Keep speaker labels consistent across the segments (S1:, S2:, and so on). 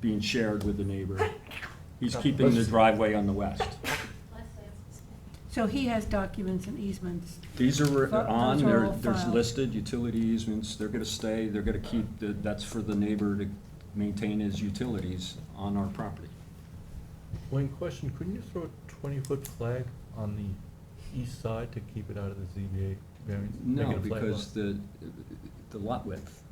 S1: being shared with the neighbor. He's keeping the driveway on the west.
S2: So he has documents and easements.
S1: These are
S2: But
S1: on,
S2: those are
S1: they're,
S2: all
S1: there's
S2: filed.
S1: listed utility easements, they're gonna stay, they're gonna keep, the- that's for the neighbor to maintain his utilities on our property.
S3: Wayne, question, couldn't you throw a twenty-foot flag on the east side to keep it out of the ZBA variance? Make
S1: No,
S3: it a flag lot.
S1: because the, the lot width,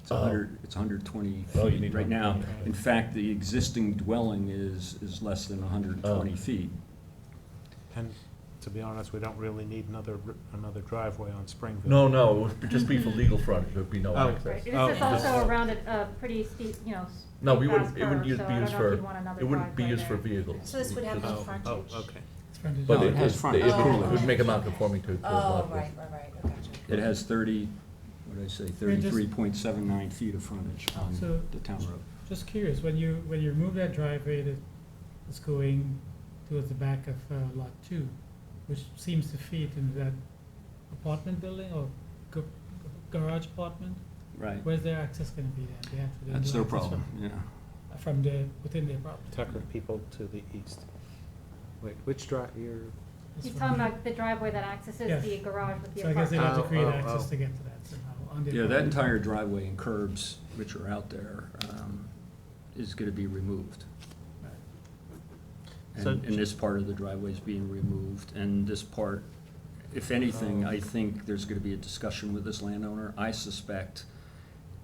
S1: it's
S3: Oh.
S1: hundred, it's hundred twenty
S3: Oh, you
S1: feet
S3: need
S1: right now.
S3: 120.
S1: In fact, the existing dwelling is, is less than hundred and twenty
S3: Oh.
S1: feet.
S4: And to be honest, we don't really need another, r- another driveway on Springville.
S3: No, no, it would be- just be for legal frontage, there'd be no
S4: Oh.
S3: access.
S5: Right, and
S4: Oh,
S5: this is also around a, a pretty steep, you know. s-
S3: No, we
S5: steep
S3: wouldn't, it
S5: fast
S3: wouldn't
S5: curve,
S3: use,
S5: so
S3: be
S5: I
S3: used
S5: don't know if
S3: for,
S5: you'd want another
S3: it wouldn't be
S5: driveway
S3: used for
S5: there.
S3: vehicles.
S6: So this would have no
S3: Just-
S4: Oh, oh,
S6: frontage.
S4: okay.
S3: But
S1: No, it
S3: it
S1: has
S3: is,
S1: front.
S3: it would-
S6: Oh,
S3: it would make them
S6: right.
S3: non-conforming to the
S6: Oh,
S3: lot.
S6: right, right, right, I gotcha.
S1: It has thirty, what did I say,
S7: We're just-
S1: thirty-three point seven nine feet of frontage on
S7: So-
S1: the town road.
S7: Just curious, when you, when you remove that driveway that is going towards the back of uh, lot two, which seems to fit into that apartment building or ga- garage apartment,
S1: Right,
S7: where's their access gonna be then? They have to then
S1: that's
S7: do
S1: their
S7: access
S1: problem, yeah.
S7: From from the, within their property.
S4: Tucker people to the east. Wait, which drive, your,
S7: That's
S5: He's
S7: what
S5: talking
S7: I mean.
S5: about the driveway that accesses
S7: Yes.
S5: the garage with the
S7: So I guess they
S5: apartment.
S7: have to
S4: Oh,
S7: create
S4: oh,
S7: access
S4: oh.
S7: to get to that somehow on the.
S1: Yeah, that entire driveway and curbs, which are out there, um, is gonna be removed. And,
S4: So-
S1: and this part of the driveway is being removed, and this part, if anything, I think there's gonna be a discussion with this landowner. I suspect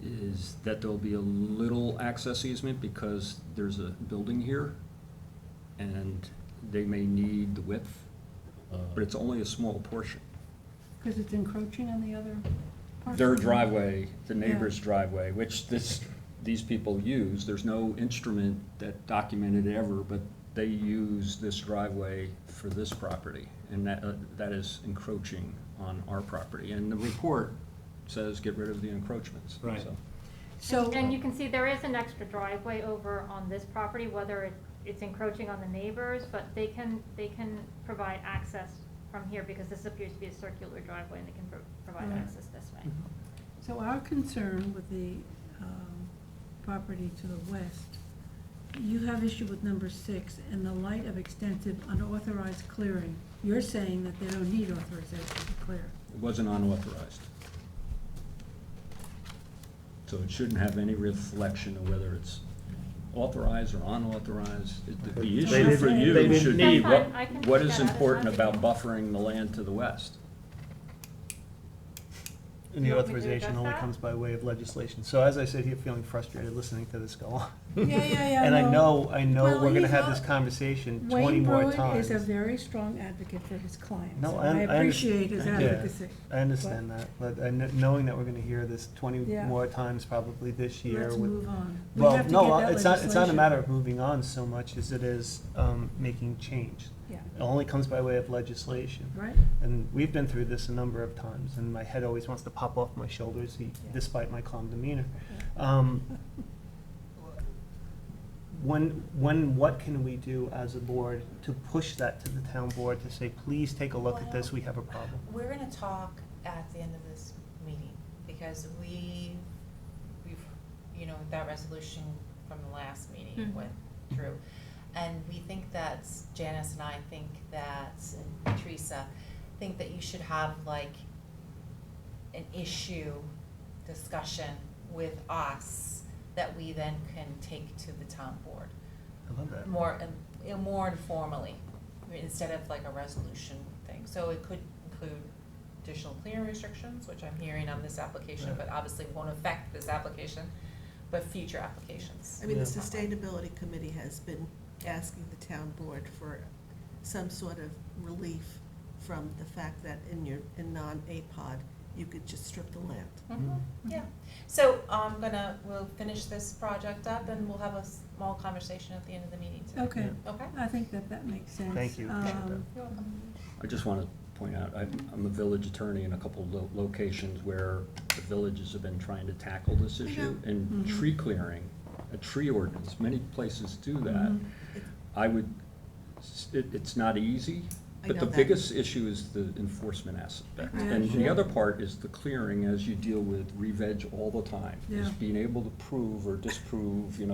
S1: is that there'll be a little access easement because there's a building here, and they may need the width,
S3: uh,
S1: but it's only a small portion.
S2: Because it's encroaching on the other parcel.
S1: their driveway, the neighbor's driveway, which this, these people use, there's no instrument that documented it ever, but they use this driveway for this property, and that, uh, that is encroaching on our property. And the report says get rid of the encroachments.
S4: Right.
S1: so.
S2: So,
S5: And- And you can see there is an extra driveway over on this property, whether it, it's encroaching on the neighbors, but they can, they can provide access from here because this appears to be a circular driveway and they can pro- provide
S2: Right.
S5: access this way.
S7: Mm-hmm.
S2: so our concern with the um, property to the west, you have issue with number six, in the light of extensive unauthorized clearing, you're saying that they don't need authorization to clear.
S1: It wasn't unauthorized. So it shouldn't have any reflection of whether it's authorized or unauthorized. It- the- The
S2: They
S1: issue for
S2: didn't- they
S1: you
S2: didn't
S1: should be,
S5: need- That's
S1: what,
S5: fine, I can
S1: what
S5: take
S1: is
S5: that out as
S1: important
S5: well.
S1: about buffering the land to the west?
S8: And
S5: Do
S8: the
S5: you want me to
S8: authorization
S5: address
S8: only
S5: that?
S8: comes by way of legislation. So as I sit here feeling frustrated listening to this go on.
S2: Yeah, yeah, yeah.
S8: And I
S2: no.
S8: know, I know we're
S2: Well,
S8: gonna
S2: he's
S8: have
S2: not-
S8: this conversation twenty
S2: Wayne
S8: more
S2: Bruin is
S8: times.
S2: a very strong advocate for his clients.
S8: No,
S2: and
S8: I- I
S2: I
S8: under-
S2: appreciate his
S8: yeah.
S2: advocacy.
S8: I understand that, but I kn- knowing that we're gonna hear this twenty
S2: Yeah.
S8: more times probably this year.
S2: Let's
S8: with-
S2: move on. We
S8: Well,
S2: have to
S8: no,
S2: get
S8: uh,
S2: that
S8: it's not, it's not a
S2: legislation.
S8: matter of moving on so much as it is, um, making change.
S2: Yeah,
S8: It only comes by way of legislation.
S2: right?
S8: And we've been through this a number of times, and my head always wants to pop off my shoulders, e- despite my calm demeanor. Um, When, when, what can we do as a board to push that to the town board to say, please take a look at this, we have a problem?
S6: We're gonna talk at the end of this meeting, because we, we've, you know, that resolution from the last meeting
S5: Mhm.
S6: went through. And we think that Janice and I think that, and Teresa, think that you should have like an issue discussion with us that we then can take to the town board
S8: I love that.
S6: more, in- more informally, I mean, instead of like a resolution thing. So it could include additional clearing restrictions, which I'm hearing on this application,
S8: Right.
S6: but obviously won't affect this application, but future applications.
S9: I mean, the
S8: Yeah.
S9: sustainability committee has been asking the town board for some sort of relief from the fact that in your, in non-APOD, you could just strip the land.
S8: Mm-hmm.
S6: Mhm, Yeah, so I'm gonna, we'll finish this project up and we'll have a small conversation at the end of the meeting today.
S2: Okay,
S6: Okay?
S2: I think that that makes sense.
S8: Thank you. Appreciate that.
S2: Um,
S6: You're welcome.
S1: I just want to point out, I'm, I'm a village attorney in a couple of lo- locations where the villages have been trying to tackle this issue. And
S9: Mm-hmm.
S2: Mhm.
S1: tree clearing, a tree ordinance, many places do
S9: Mm-hmm.
S1: that.
S2: Mhm.
S1: I would, s- it, it's not easy,
S9: I
S1: but the
S9: know that.
S1: biggest issue is the enforcement aspect.
S2: Yeah,
S1: And the
S2: sure.
S1: other part is the clearing, as you deal with re-veg all the time, is
S2: Yeah.
S1: being able to prove or disprove, you know,